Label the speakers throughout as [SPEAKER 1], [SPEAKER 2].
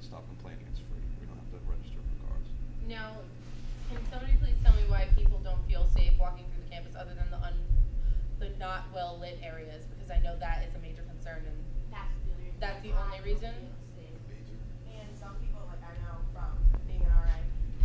[SPEAKER 1] stop complaining it's free. We don't have to register for cars.
[SPEAKER 2] Now, can somebody please tell me why people don't feel safe walking through the campus other than the un, the not well lit areas? Because I know that is a major concern and
[SPEAKER 3] That's the only reason.
[SPEAKER 2] That's the
[SPEAKER 3] why
[SPEAKER 2] only
[SPEAKER 3] I
[SPEAKER 2] reason?
[SPEAKER 3] feel safe.
[SPEAKER 4] And some people, like I know from being an RA,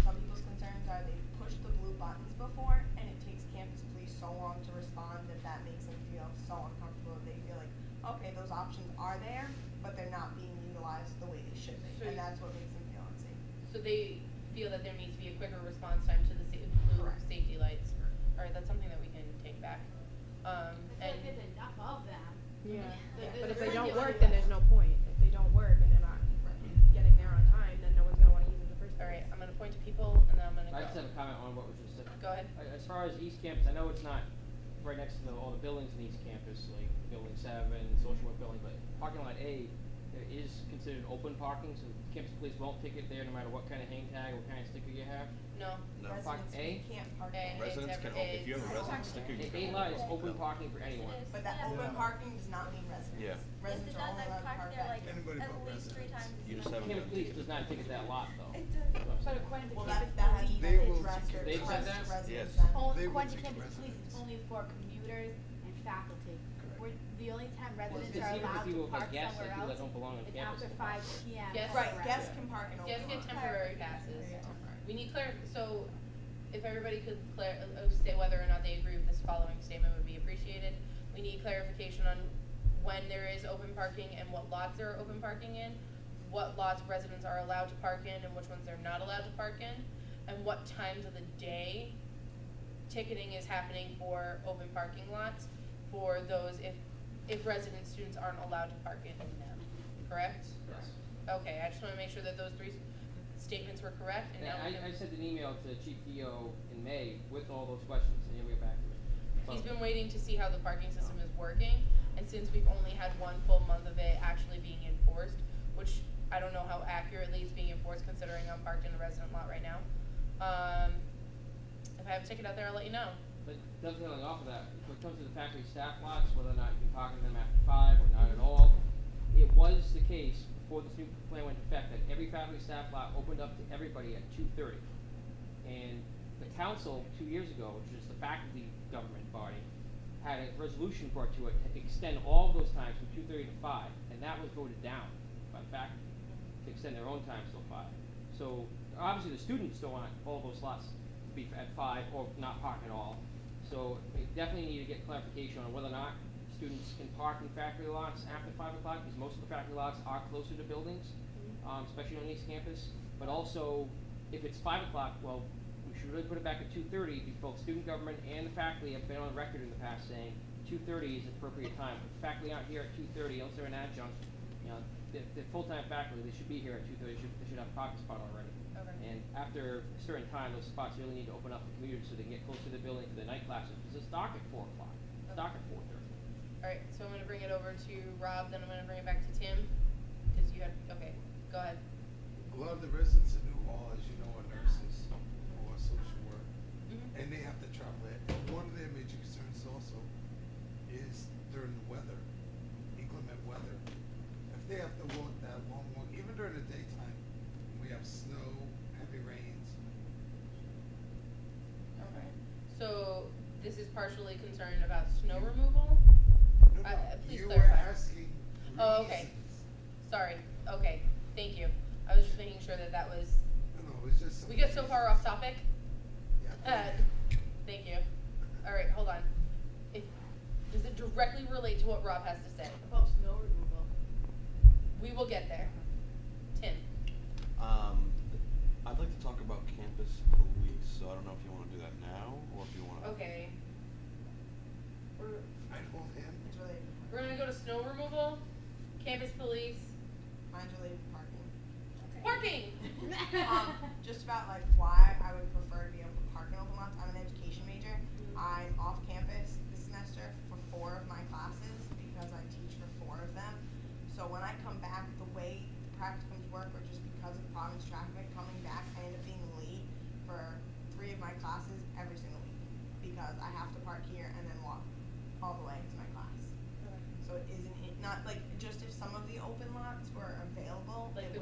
[SPEAKER 4] some people's concerns are they push the blue buttons before, and it takes campus police so long to respond that that makes them feel so uncomfortable. They feel like, okay, those options are there, but they're not being utilized the way they should be,
[SPEAKER 2] So
[SPEAKER 4] and
[SPEAKER 2] you-
[SPEAKER 4] that's what makes them feel unsafe.
[SPEAKER 2] so they feel that there needs to be a quicker response time to the sa- blue
[SPEAKER 4] Correct.
[SPEAKER 2] safety lights. All right, that's something that we can take back. Um,
[SPEAKER 3] I
[SPEAKER 2] and
[SPEAKER 3] feel like there's enough of them.
[SPEAKER 5] Yeah,
[SPEAKER 3] Like,
[SPEAKER 4] Yeah,
[SPEAKER 5] but
[SPEAKER 3] there's
[SPEAKER 5] if they
[SPEAKER 3] really
[SPEAKER 5] don't
[SPEAKER 3] only
[SPEAKER 5] work, then
[SPEAKER 3] one.
[SPEAKER 5] there's no point. If they don't work and they're not getting there on time, then no one's gonna wanna use it in the first
[SPEAKER 2] all
[SPEAKER 5] place.
[SPEAKER 2] right, I'm gonna point to people and then I'm gonna
[SPEAKER 6] I
[SPEAKER 2] go.
[SPEAKER 6] just have a comment on what was just said.
[SPEAKER 2] Go ahead.
[SPEAKER 6] A- As far as East Campus, I know it's not right next to the, all the buildings in East Campus, like Building Seven, Social Work Building, but parking lot A, there is considered open parking, so campus police won't ticket there no matter what kind of hang tag or kind of sticker you have.
[SPEAKER 2] No.
[SPEAKER 1] No.
[SPEAKER 6] Park
[SPEAKER 4] Residents
[SPEAKER 6] A?
[SPEAKER 4] can't
[SPEAKER 2] A.
[SPEAKER 4] park there.
[SPEAKER 1] Residents can, o- if you have a resident sticker, you
[SPEAKER 6] A,
[SPEAKER 1] can.
[SPEAKER 6] A lot is
[SPEAKER 1] open it.
[SPEAKER 6] open parking for anyone.
[SPEAKER 7] Yes,
[SPEAKER 4] But
[SPEAKER 7] it
[SPEAKER 4] that open
[SPEAKER 7] is.
[SPEAKER 4] parking does not mean residents.
[SPEAKER 1] Yeah.
[SPEAKER 7] Yes,
[SPEAKER 4] Residents
[SPEAKER 7] it
[SPEAKER 4] are
[SPEAKER 7] does.
[SPEAKER 4] only allowed
[SPEAKER 7] I've
[SPEAKER 4] to park
[SPEAKER 7] parked there
[SPEAKER 4] back
[SPEAKER 7] like
[SPEAKER 4] there.
[SPEAKER 8] Anybody but
[SPEAKER 7] at least three
[SPEAKER 8] residents.
[SPEAKER 7] times.
[SPEAKER 1] You
[SPEAKER 7] as
[SPEAKER 1] just
[SPEAKER 7] much.
[SPEAKER 1] haven't done
[SPEAKER 6] Campus police
[SPEAKER 1] tickets.
[SPEAKER 6] does not ticket that lot though.
[SPEAKER 7] It does.
[SPEAKER 6] That's what
[SPEAKER 7] But
[SPEAKER 6] I'm
[SPEAKER 7] according to
[SPEAKER 4] Well,
[SPEAKER 7] campus
[SPEAKER 4] that, that
[SPEAKER 7] police,
[SPEAKER 4] hasn't
[SPEAKER 8] They
[SPEAKER 4] been
[SPEAKER 8] will
[SPEAKER 4] addressed or
[SPEAKER 6] secure- They've said
[SPEAKER 4] addressed
[SPEAKER 6] that?
[SPEAKER 4] to
[SPEAKER 1] Yes.
[SPEAKER 4] residents. then.
[SPEAKER 7] only,
[SPEAKER 8] They will
[SPEAKER 7] according to
[SPEAKER 8] take
[SPEAKER 7] campus police,
[SPEAKER 8] residents.
[SPEAKER 7] it's only for commuters and faculty.
[SPEAKER 8] Correct.
[SPEAKER 7] We're, the only time
[SPEAKER 6] Well,
[SPEAKER 7] residents
[SPEAKER 6] it's
[SPEAKER 7] are
[SPEAKER 6] even
[SPEAKER 7] allowed
[SPEAKER 6] if you
[SPEAKER 7] to
[SPEAKER 6] look at
[SPEAKER 7] park
[SPEAKER 6] guests,
[SPEAKER 7] somewhere
[SPEAKER 6] like, people that
[SPEAKER 7] else,
[SPEAKER 6] don't belong on
[SPEAKER 7] it's
[SPEAKER 6] campus
[SPEAKER 7] after
[SPEAKER 6] will park.
[SPEAKER 7] five P M.
[SPEAKER 2] Yes.
[SPEAKER 4] Right, guests can park in
[SPEAKER 2] Just
[SPEAKER 4] open
[SPEAKER 2] get
[SPEAKER 4] parking.
[SPEAKER 2] temporary passes.
[SPEAKER 4] There you go.
[SPEAKER 2] We need clar, so if everybody could clar, uh, state whether or not they agree with this following statement would be appreciated. We need clarification on when there is open parking and what lots there are open parking in, what lots residents are allowed to park in and which ones they're not allowed to park in, and what times of the day ticketing is happening for open parking lots for those if, if resident students aren't allowed to park in them, correct?
[SPEAKER 6] Yes.
[SPEAKER 2] Okay, I just wanna make sure that those three statements were correct, and now
[SPEAKER 6] And
[SPEAKER 2] we
[SPEAKER 6] I, I
[SPEAKER 2] can,
[SPEAKER 6] sent an email to Chief Dio in May with all those questions, and he'll get back to me.
[SPEAKER 2] he's
[SPEAKER 6] But-
[SPEAKER 2] been waiting to see how the parking system is working, and since we've only had one full month of it actually being enforced, which I don't know how accurately it's being enforced considering I'm parked in the resident lot right now. Um, if I have a ticket out there, I'll let you know.
[SPEAKER 6] But dovetailing off of that, when it comes to the factory staff lots, whether or not you can park in them after five or not at all, it was the case before this new plan went into effect that every factory staff lot opened up to everybody at two thirty. And the council, two years ago, which is the faculty government body, had a resolution brought to it to extend all of those times from two thirty to five, and that was voted down by the faculty to extend their own times till five. So obviously, the students don't want all those slots to be at five or not park at all. So we definitely need to get clarification on whether or not students can park in factory lots after five o'clock, because most of the factory lots are closer to buildings, um, especially on East Campus. But also, if it's five o'clock, well, we should really put it back at two thirty, because both student government and the faculty have been on record in the past saying two thirty is appropriate time. If faculty aren't here at two thirty, unless they're an adjunct, you know, they're, they're full-time faculty, they should be here at two thirty, they should, they should have a parking spot already.
[SPEAKER 2] Okay.
[SPEAKER 6] And after a certain time, those spots really need to open up for commuters so they can get closer to the building for the night classes, because it's dark at four o'clock, it's dark at four thirty.
[SPEAKER 2] Alright, so I'm gonna bring it over to Rob, then I'm gonna bring it back to Tim, cause you had, okay, go ahead.
[SPEAKER 8] A lot of the residents in New Hall, as you know, are nurses or social work,
[SPEAKER 2] Mhm.
[SPEAKER 8] and they have to travel. And one of their major concerns also is during the weather, inclement weather. If they have to walk that long walk, even during the daytime, when we have snow, heavy rains,
[SPEAKER 2] Okay. So this is partially concerned about snow removal?
[SPEAKER 8] no,
[SPEAKER 2] Uh,
[SPEAKER 8] no,
[SPEAKER 2] uh, please
[SPEAKER 8] you were
[SPEAKER 2] clarify.
[SPEAKER 8] asking
[SPEAKER 2] Oh, okay.
[SPEAKER 8] reasons.
[SPEAKER 2] Sorry, okay, thank you. I was just making sure that that was,
[SPEAKER 8] No, no, it's just.
[SPEAKER 2] we get so far off
[SPEAKER 8] topic.
[SPEAKER 2] topic. Uh,
[SPEAKER 8] Yeah.
[SPEAKER 2] thank you. All right, hold on. If, does it directly relate to what Rob has to say?
[SPEAKER 5] About snow removal.
[SPEAKER 2] We will get there. Tim,
[SPEAKER 1] Um, I'd like to talk about campus police, so I don't know if you wanna do that now, or if you wanna.
[SPEAKER 2] okay. We're,
[SPEAKER 8] I hold him.
[SPEAKER 4] Mine's related to
[SPEAKER 2] we're gonna go to snow removal, campus police,
[SPEAKER 4] parking. Mine's related to parking.
[SPEAKER 2] parking!
[SPEAKER 4] um, just about like why I would prefer to be able to park in open lots. I'm an education major. I'm off campus this semester for four of my classes because I teach for four of them. So when I come back, the way the practicums work, or just because of Providence traffic coming back, I end up being late for three of my classes every single week because I have to park here and then walk all the way to my class. So it isn't not like just if some of the open lots were available,
[SPEAKER 2] Like
[SPEAKER 4] it
[SPEAKER 2] the